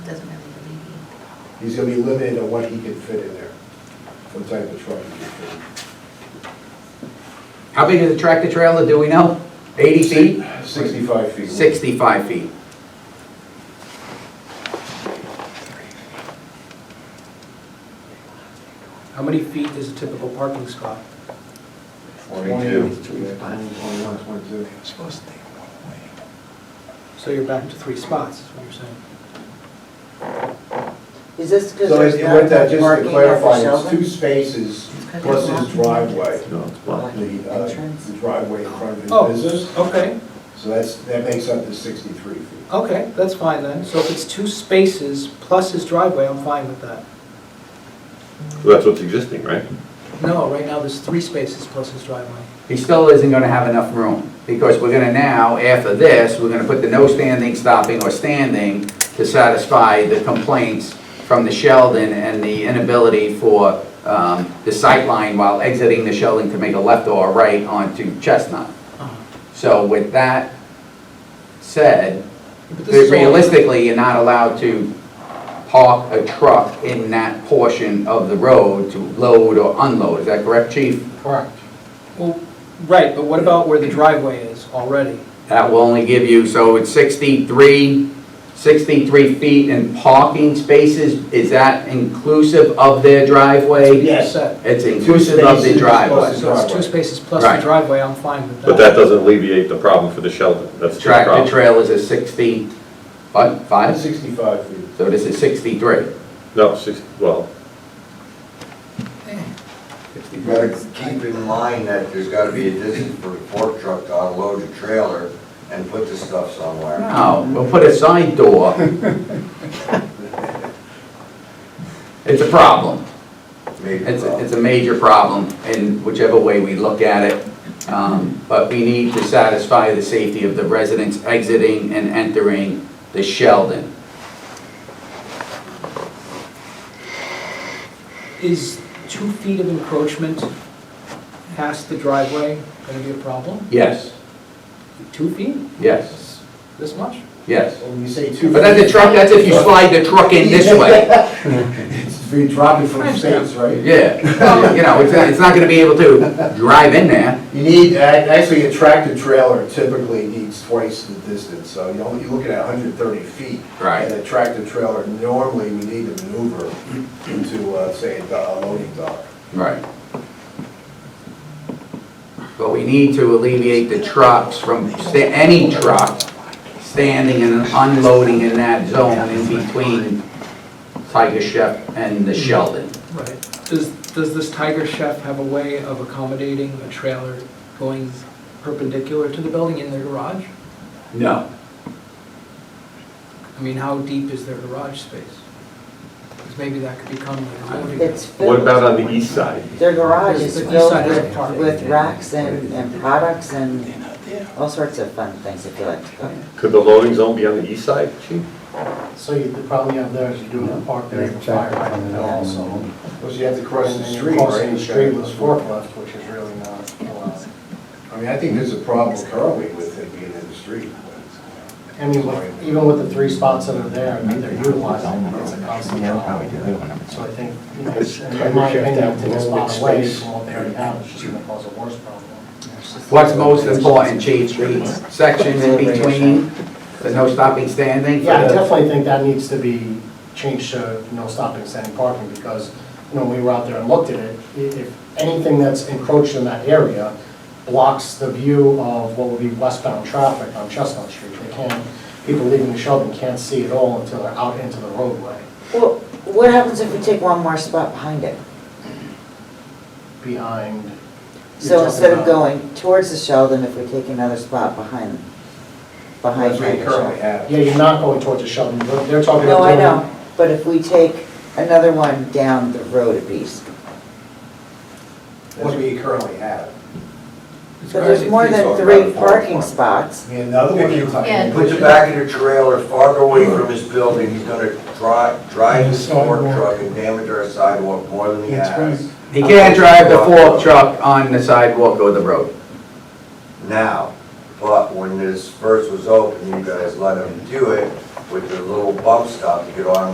He's gonna be limited on what he can fit in there, what type of truck he can fit in. How big is the tractor trailer, do we know? 80 feet? Sixty-five feet. 65 feet. How many feet is a typical parking spot? Twenty-two. So you're back to three spots, is what you're saying. Is this because So there's it's, with not that, much just to parking at clarify, the it's two shelter? spaces plus his driveway, the, uh, Entrance? the driveway in front Oh. of his business. Okay, So that's, that makes up to sixty-three feet. okay, that's fine then. So if it's two spaces plus his driveway, I'm fine with that. Well, that's what's existing, right? No, right now there's three spaces plus his driveway. He still isn't gonna have enough room, because we're gonna now, after this, we're gonna put the no standing, stopping, or standing to satisfy the complaints from the Sheldon and the inability for um, the sightline while exiting the Sheldon to make a left or a right onto Chestnut. So with that said, But this is all- realistically, you're not allowed to park a truck in that portion of the road to load or unload, is that correct, chief? Correct. Well, right, but what about where the driveway is already? That will only give you, so it's 63, 63 feet in parking spaces, is that inclusive of their driveway? Yes. Set. It's inclusive of the Spaces plus driveway. So it's two spaces plus the Right. driveway, I'm fine with that. But that doesn't alleviate the problem for the shelter, that's the Tractor problem. trailers is 60, what, five? Sixty-five feet. So this is 63. No, six, well, You gotta keep in mind that there's gotta be a distance for a fork truck to unload a trailer and put the stuff somewhere. No, we'll put a side door. It's a problem. Maybe It's, wrong. it's a major problem in whichever way we look at it. Um, But we need to satisfy the safety of the residents exiting and entering the Sheldon. Is two feet of encroachment past the driveway going to be a problem? Yes, Two feet? yes, This much? yes. When you say two. But that's a truck, that's if you slide the truck in this way. It's if you drop it from the States, right? Yeah, you know, it's, not- it's not gonna be able to drive in there. You need, ac- actually, a tractor trailer typically needs twice the distance, so you're only- you're looking at hundred and thirty feet. Right. And a tractor trailer, normally, we need to maneuver into, uh, say, a do- a loading dock. Right. But we need to alleviate the trucks from, sta- any truck standing and unloading in that zone in between Tiger Chef and the Sheldon. Right. Does, does this Tiger Chef have a way of accommodating a trailer going perpendicular to the building in their garage? No. I mean, how deep is their garage space? Because maybe that could become like a loading. It's what filled, about on the east side? their garage is It's the filled east side of the park. with, with racks and, and products and all sorts of fun things if you like to go. Could the loading zone be on the east side, chief? So you, the problem you have there is you're doing a park there for fire hydrant also. Because you have to cross the And then street, Crossing right? the street with a forklift, which is really not allowed. I mean, I think there's a problem currently with it being in the street. I mean, with- even with the three spots that are there, I mean, they're utilizing, it, it's a constant problem. So I think, you know, in my opinion, taking a spot away from what they already have is just gonna cause a worse problem. What's most important, Chief, the section in between, the no stopping standing? Yeah, I definitely think that needs to be changed to no stopping, standing parking, because, you know, we were out there and looked at it, i- if anything that's encroached in that area blocks the view of what would be westbound traffic on Chestnut Street, they can't, people leaving Sheldon can't see at all until they're out into the roadway, Well, what happens if we take one more spot behind it? behind. you're So talking instead of about- going towards the Sheldon, if we take another spot behind, behind That's what you Tiger currently Chef? have. Yeah, you're not going towards the Sheldon, they're- they're talking about. No, I doing- know, but if we take another one down the road a piece, That's what you currently have. but there's more than three parking spots. I mean, another one. If you Yeah. put the back of the trailer farther away from his building, he's gonna drive, drive his fork truck and damage our sidewalk more than he has He can't drive the fork truck on the sidewalk or the road. now. But when this first was open, you guys let him do it with the little bump stop to get on